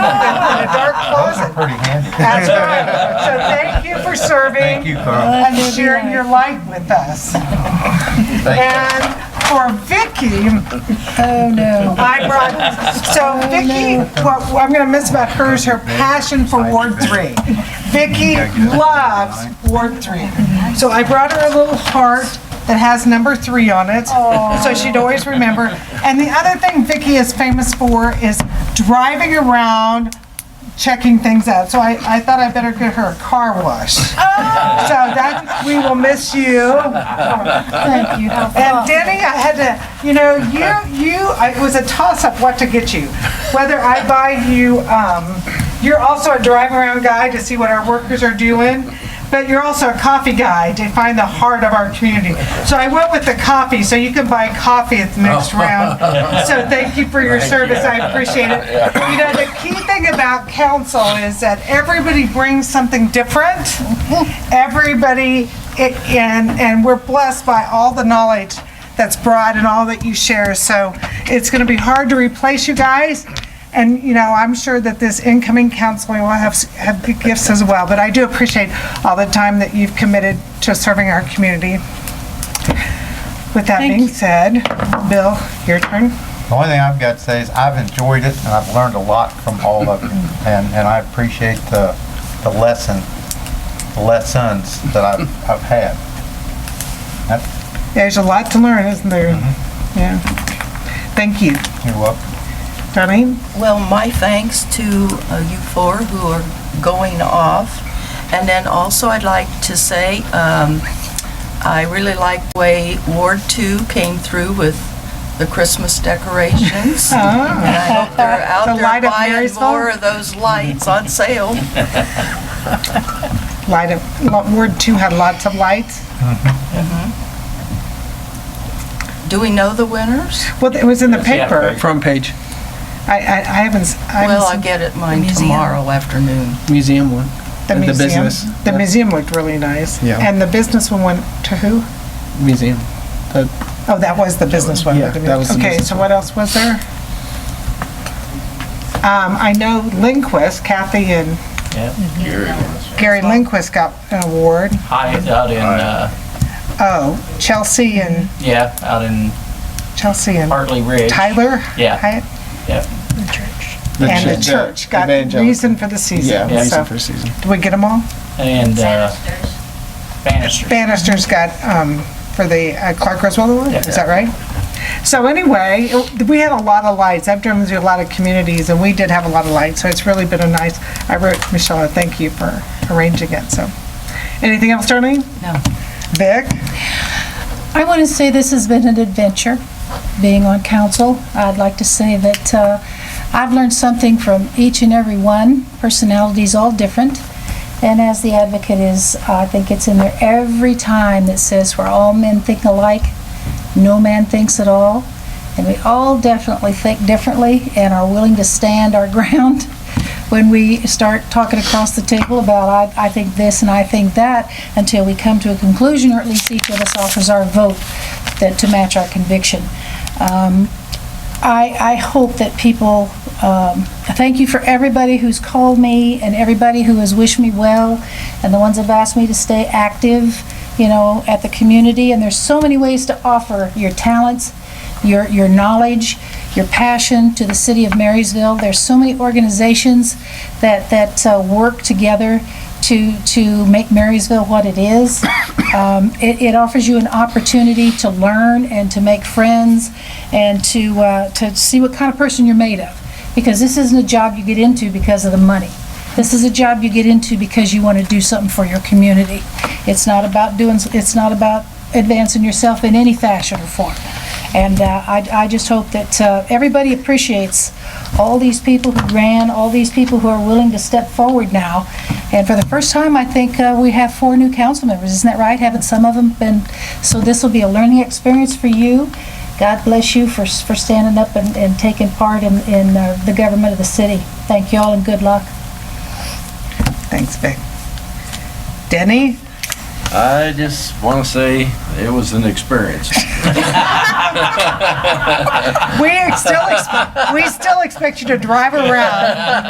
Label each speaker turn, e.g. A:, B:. A: a dark closet.
B: Pretty handy.
A: That's all right. So thank you for
B: Thank you,
A: serving
B: Carl.
A: and sharing your light with us.
B: Thank
A: And for Vicky,
C: Oh, no. Oh,
A: I brought, so Vicky, what I'm going to miss about her is her passion for Ward 3. Vicky loves Ward 3. So I brought her a little heart that has number 3 on it, so she'd always remember. And the other thing Vicky is famous for is driving around, checking things out. So I, I thought I better get her a car wash.
C: Oh.
A: So that, we will miss you.
C: Thank you.
A: And Denny, I had to, you know, you, you, I- it was a toss-up what to get you. Whether I buy you, um, you're also a drive-around guy to see what our workers are doing, but you're also a coffee guy to find the heart of our community. So I went with the coffee, so you can buy coffee at the next round. So Oh. thank you for your service, I appreciate it. You know, the key thing about council is that everybody brings something different. Everybody it- and, and we're blessed by all the knowledge that's brought and all that you share. So it's going to be hard to replace you guys. And, you know, I'm sure that this incoming council will have, s- have good gifts as well. But I do appreciate all the time that you've committed to serving our community. With that being said, Bill, your turn.
B: The only thing I've got to say is I've enjoyed it and I've learned a lot from all of you. And, and I appreciate the, the lesson, the lessons that I've, I've had. That-
A: There's a lot to learn, isn't there? Yeah. Thank you.
B: You're welcome.
A: Darlene?
D: Well, my thanks to uh, you four who are going off. And then also, I'd like to say, um, I really like the way Ward Two came through with the Christmas decorations. And I hope they're
A: Oh. The
D: out
A: light
D: there
A: of
D: buying
A: Marysville?
D: more of those lights on sale.
A: Light of, lo- Ward 2 had lots of lights.
D: Do we know the winners?
A: Well, it was in the paper.
E: Front page,
A: I, I, I haven't, s- I
D: Well, I
A: haven't
D: get it mine tomorrow afternoon.
E: museum one.
A: seen the museum.
E: business.
A: The museum looked really nice.
B: Yeah.
A: And the business one went to who?
E: Museum.
A: Oh, that was the business one.
E: Yeah, that was the
A: Okay,
E: business
A: so what else was there? Um, I know Lindquist, Kathy and Gary Lindquist got an award.
F: Hyatt out in, uh,
A: Oh, Chelsea and,
F: yeah, out in
A: Chelsea and
F: Hartley Ridge.
A: Tyler?
F: Yeah.
A: Hyatt?
F: Yeah.
A: And the church got reason for the season.
E: Yeah,
A: So,
E: reason for season.
A: Did we get them all?
F: And uh, Bannister.
A: Bannister's got, um, for the uh, Clark Griswold Award,
F: Yeah.
A: is that right? So anyway, it- we had a lot of lights. I've driven through a lot of communities, and we did have a lot of lights, so it's really been a nice, I wrote Michelle, a thank you for arranging it, so. Anything else, Darlene?
D: No.
A: Vic?
C: I want to say this has been an adventure, being on council. I'd like to say that uh, I've learned something from each and every one. Personalities all different. And as the advocate is, I think it's in there every time that says where all men think alike, no man thinks at all. And we all definitely think differently and are willing to stand our ground when we start talking across the table about, I, I think this and I think that, until we come to a conclusion, or at least each of us offers our vote that, to match our conviction. Um, I, I hope that people, um, thank you for everybody who's called me and everybody who has wished me well and the ones that have asked me to stay active, you know, at the community. And there's so many ways to offer your talents, your, your knowledge, your passion to the city of Marysville. There's so many organizations that, that uh, work together to, to make Marysville what it is. Um, It, it offers you an opportunity to learn and to make friends and to, uh, to see what kind of person you're made of. Because this isn't a job you get into because of the money. This is a job you get into because you want to do something for your community. It's not about doing, it's not about advancing yourself in any fashion or form. And uh, I I just hope that uh, everybody appreciates all these people who ran, all these people who are willing to step forward now. And for the first time, I think uh, we have four new council members, isn't that right? Haven't some of them been, so this will be a learning experience for you. God bless you for for standing up and and taking part in in uh, the government of the city. Thank you all and good luck.
A: Thanks, Vic. Denny?
G: I just want to say it was an experience.
A: We ex- still, ex- we still expect you to drive around